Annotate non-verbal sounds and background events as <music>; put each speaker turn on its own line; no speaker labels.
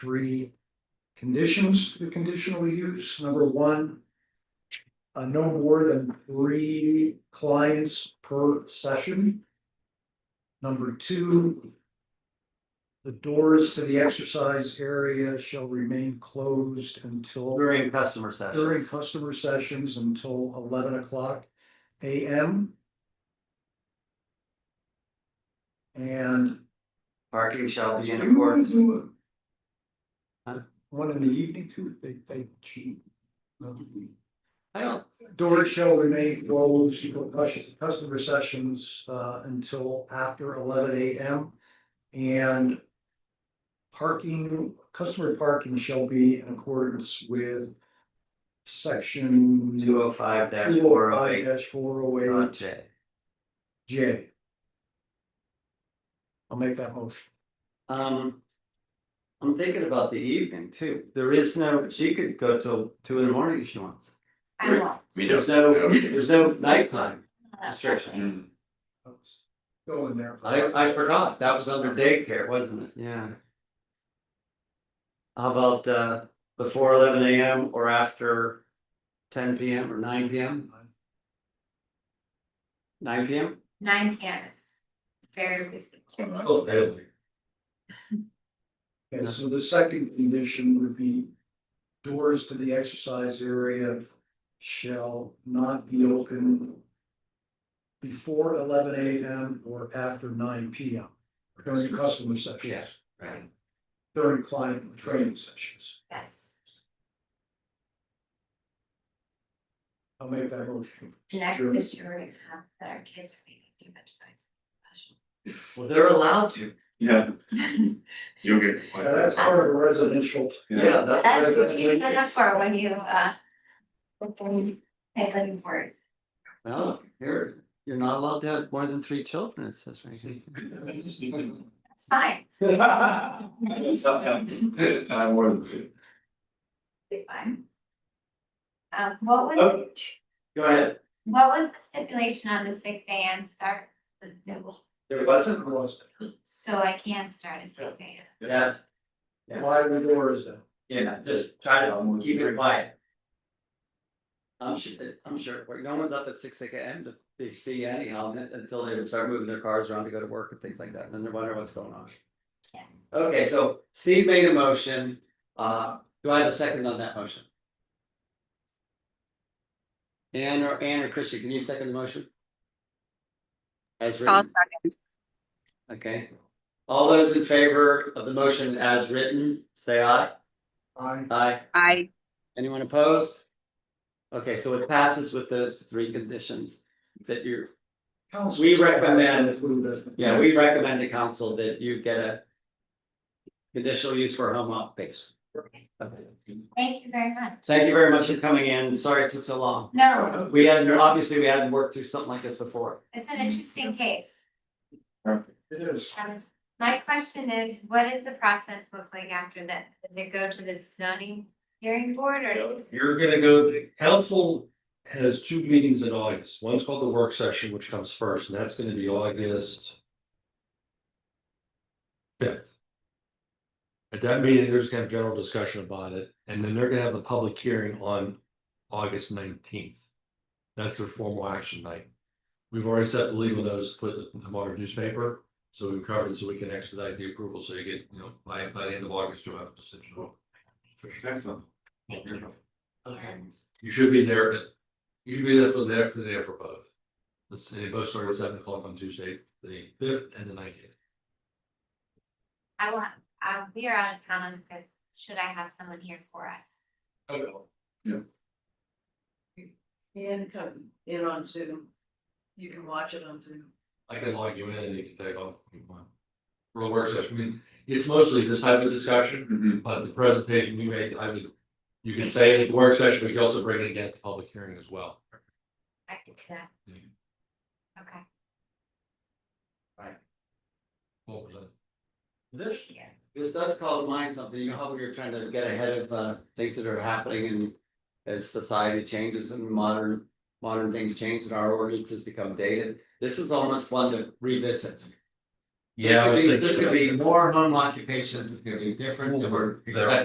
three conditions to the conditional use. Number one. Uh, no more than three clients per session. Number two. The doors to the exercise area shall remain closed until
During customer session.
during customer sessions until eleven o'clock AM. And
Parking shall be in
Do you wanna
accordance.
do a-
Huh?
One in the evening too, they they cheat.
I don't,
Doors shall remain closed for cus- customer sessions uh until after eleven AM. And. Parking, customer parking shall be in accordance with. Section.
two oh five dash four oh eight,
four oh
dot
eight
J.
J. I'll make that motion.
Um. I'm thinking about the evening too. There is no, she could go till two in the morning if she wants.
I won't.
We
There's
don't
no,
know.
there's no nighttime restrictions.
Mm.
Let's Go in there.
I I forgot, that was under daycare, wasn't it? Yeah. How about uh before eleven AM or after ten PM or nine PM, nine PM?
Nine cans. Very reasonable.
Okay, so the second condition would be doors to the exercise area shall not be open before eleven AM or after nine PM during customer
Yeah.
sessions,
Right.
during client training sessions.
Yes.
I'll make that motion.
Next
Sure.
this year, we're gonna have that our kids are making too much
Well, they're allowed to.
Yeah,
noise.
you'll get.
Yeah, That's part of
<laughs>
residential.
Yeah, that's.
That's
what
what you sign up for when you uh. Before you pay living quarters.
No, you're, you're not allowed to have more than three children, it says right here.
It's fine.
<laughs> I'm more than two.
Be fine. Um, what was,
Okay.
Go ahead.
what was the stipulation on the six AM start? The- the-
There wasn't one.
So I can start at six AM.
Yes,
Why the doors then?
yeah, just try to keep it quiet. I'm sure, I'm sure, no one's up at six AM to, they see anyhow, until they start moving their cars around to go to work and things like that, and then they're wondering what's going on.
Yes.
Okay, so Steve made a motion, uh, do I have a second on that motion? Ann or Ann or Christian, can you second the motion? As
I'll
written,
second.
okay, all those in favor of the motion as written, say aye,
I,
aye,
I,
anyone opposed? Okay, so it passes with those three conditions that you're,
council.
We recommend-
Included.
yeah, we recommend to council that you get a. Conditional use for home office. Okay.
Thank you very much.
Thank you very much for coming in. Sorry it took so long.
No,
We hadn't, obviously, we hadn't worked through something like this before.
it's an interesting case.
It is.
Um, My question is, what does the process look like after that? Does it go to the zoning hearing board or?
You're gonna go, the council has two meetings in August. One's called the work session, which comes first, and that's gonna be August. Fifth. At that meeting, there's gonna have general discussion about it, and then they're gonna have the public hearing on August nineteenth. That's their formal action night. We've already set the legal notice, to put it in the modern newspaper, so we've covered it, so we can expedite the approval, so you get, you know, by by the end of August, you'll have a decision.
Excellent.
Thank you. And
You should be there, at- you should be there for there for the day for both. Let's say both start at seven o'clock on Tuesday, the fifth and the nineteenth.
I want, uh, we are out of town on the fifth. Should I have someone here for us?
And come in on Zoom. You can watch it on Zoom.
I can log you in and you can take off. if you want. Real work session, I mean, it's mostly this type of discussion,
Mhm.
but the presentation we make, I would. You can say it at the work session, but you also bring it again at the public hearing as well.
I can do that.
Yeah.
Okay.
What was that?
This,
Yeah.
this does call to mind something, you know how we were trying to get ahead of uh things that are happening and. As society changes and modern, modern things change and our ordinances become dated, this is almost one to revisit. There's
Yeah, I
gonna
was
be-
thinking
There's gonna
that.
be more home occupations, it's gonna be different, and we're
There-